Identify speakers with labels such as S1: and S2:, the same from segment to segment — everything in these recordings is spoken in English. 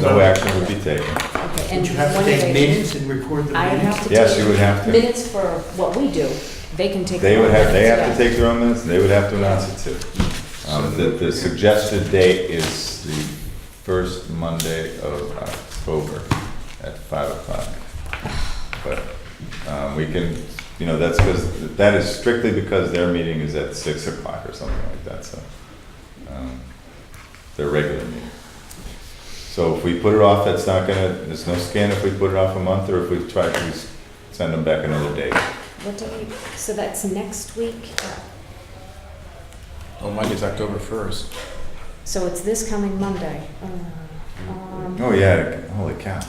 S1: no action would be taken.
S2: Okay, and
S3: Would you have to
S2: when are
S3: take
S2: they-
S3: minutes and record the
S2: I would
S3: minutes?
S2: have to
S1: Yes, you
S2: take
S1: would have to.
S2: minutes for what we do. They can take.
S1: They
S2: their
S1: would
S2: own
S1: have, they
S2: minutes,
S1: have to
S2: yeah.
S1: take their own minutes, and they would have to announce it too. Um, The, the suggested date is the first Monday of October at five o'clock. But, um, we can, you know, that's because, that is strictly because their meeting is at six o'clock or something like that, so. um, Their regular meeting. So if we put it off, that's not gonna, there's no scan if we put it off a month, or if we try to s- send them back another date.
S2: What do we, so that's next week?
S4: Oh, Mike, it's October first.
S2: So it's this coming Monday. Uh, um,
S1: Oh, yeah, holy cow.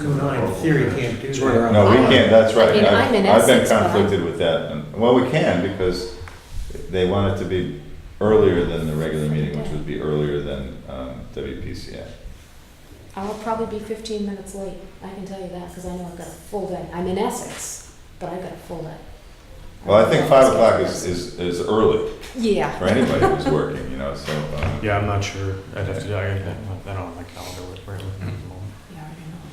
S3: No, no, in theory, you can't do
S4: It's right
S3: that.
S4: around-
S1: No, we can't, that's
S2: I
S1: right.
S2: mean,
S1: I've-
S2: I'm Um, in
S1: I've been
S2: Essex, but I'm-
S1: conflicted with that. And- Well, we can, because they want it to be earlier than the regular meeting, which would be earlier than um, WPCA.
S2: I'll probably be fifteen minutes late. I can tell you that because I know I've got a full day. I'm in Essex, but I've got a full day.
S1: Well, I think five o'clock is, is, is early
S2: Yeah.
S1: for anybody who's working, you know, so. um,
S5: Yeah, I'm not sure. I'd have to, I I don't have my calendar with me at the moment.
S2: Yeah, I don't know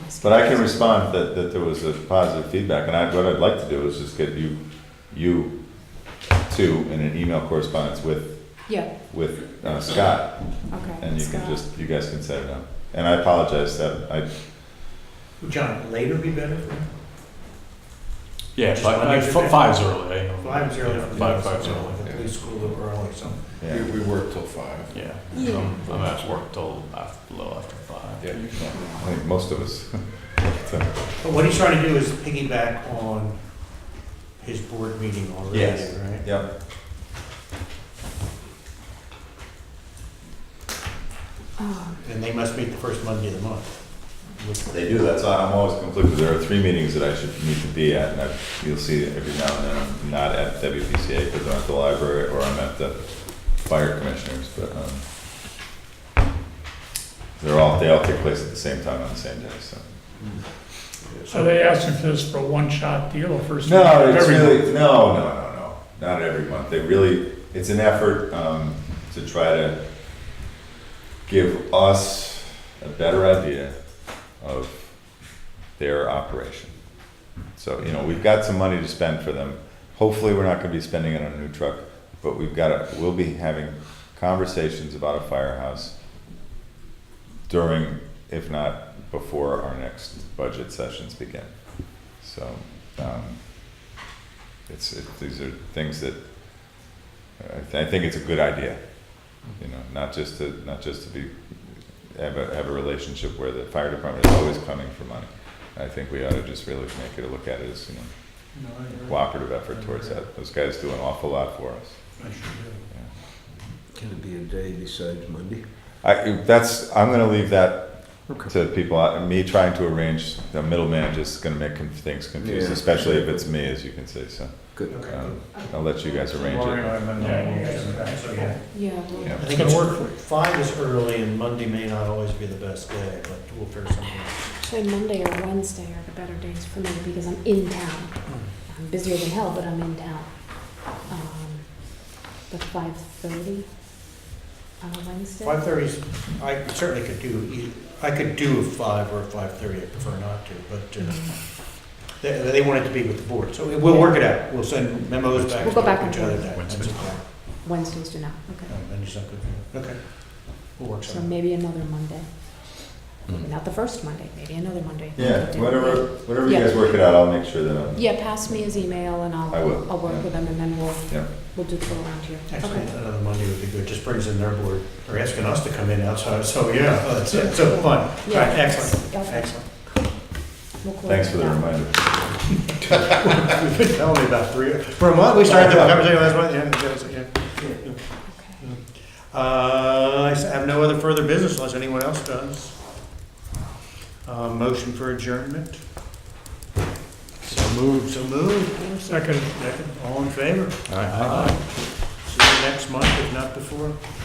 S2: what my
S1: But I can
S2: schedule is.
S1: respond that, that there was a positive feedback, and I, what I'd like to do is just get you, you two in an email correspondence with,
S2: Yeah,
S1: with uh, Scott,
S2: okay.
S1: And you can
S2: Scott.
S1: just, you guys can set it up. And I apologize that I,
S3: Would John, later be better? for him?
S5: Yeah,
S3: Just
S5: five,
S3: Monday
S5: I-
S3: through
S5: fi-
S3: Friday.
S5: five's early. I know.
S3: Five's early.
S5: Yeah, Five, five's early,
S3: At least school a little early, so.
S4: We,
S1: yeah,
S4: we work till five.
S5: yeah.
S2: Yeah.
S5: So I'm I'm at work till af- below after five.
S4: Yeah.
S1: I think most of us.
S3: But what he's trying to do is piggyback on his board meeting already,
S1: Yes.
S3: right?
S1: Yep.
S2: Oh,
S3: And they must meet the first Monday of the month.
S1: They do, that's why I'm always conflicted. There are three meetings that I should need to be at, and I, you'll see every now and then, I'm not at WPCA because I'm at the library or I'm at the fire commissioners, but, um, they're all, they all take place at the same time on the same day, so.
S6: So they asking for this for a one-shot deal or first?
S1: No,
S6: one?
S1: it's
S6: Every-
S1: really, no, no, no, no, not every month. They really, it's an effort, um, to try to give us a better idea of their operation. So, you know, we've got some money to spend for them. Hopefully, we're not gonna be spending it on a new truck, but we've gotta, we'll be having conversations about a firehouse during, if not before, our next budget sessions begin. So, um, it's, it, these are things that, I, th- I think it's a good idea, you know, not just to, not just to be, have a, have a relationship where the fire department is always coming for money. I think we ought to just really make it a look at it as, you know, cooperative effort towards that. Those guys do an awful lot for us.
S7: Can it be a day besides Monday?
S1: I, that's, I'm gonna leave that
S4: Okay.
S1: to people, I- me trying to arrange, the middleman just gonna make conf- things confused,
S7: Yeah.
S1: especially if it's me, as you can see, so.
S7: Good.
S3: Okay.
S1: um, I'll let you guys arrange
S5: Lauren and
S1: it.
S5: I have been-
S3: So, yeah.
S2: Yeah. well,
S1: Yeah.
S3: I
S6: It's
S3: think
S6: gonna
S3: it's,
S6: work for you.
S3: five is early and Monday may not always be the best day, but we'll figure something out.
S2: Actually, Monday or Wednesday are the better days for me because I'm in town.
S1: Hmm.
S2: I'm busier than hell, but I'm in town. Um, But five thirty on a Wednesday?
S3: Five thirty's, I certainly could do, e- I could do a five or a five thirty, I prefer not to, but uh,
S2: Mm.
S3: they, they want it to be with the board, so we'll work it out. We'll send memos back
S2: We'll go back
S3: to
S2: and
S3: each other.
S2: forth.
S3: that- that's fine.
S2: Wednesdays do not, okay.
S3: No, Monday's not good for you. Okay. We'll work
S2: So
S3: something.
S2: maybe another Monday.
S7: Mm-hmm.
S2: Maybe Not the first Monday, maybe another Monday.
S1: Yeah, whatever, whatever you
S2: Yeah.
S1: guys work it out, I'll make sure that I'm,
S2: Yeah, pass me his email and I'll,
S1: I will,
S2: I'll work
S1: yeah.
S2: with him and then we'll,
S1: yeah.
S2: we'll do the go around here.
S3: Actually,
S2: Okay.
S3: another Monday would be good, just brings in their board, or asking us to come in outside, so yeah, that's, that's so fun. All right,
S2: Yeah.
S3: Excellent,
S2: Okay.
S3: excellent.
S2: We'll close
S1: Thanks for the
S2: that.
S1: reminder.
S3: We've been telling me about three, for a month, we started the conversation last month, yeah, that was- yeah.
S2: Okay.
S3: Uh, I have no other further business unless anyone else does. Uh, motion for adjournment? So moved. So moved.
S6: Second.
S3: Second, all in favor?
S5: All right.
S3: Aye. See you next month, if not before.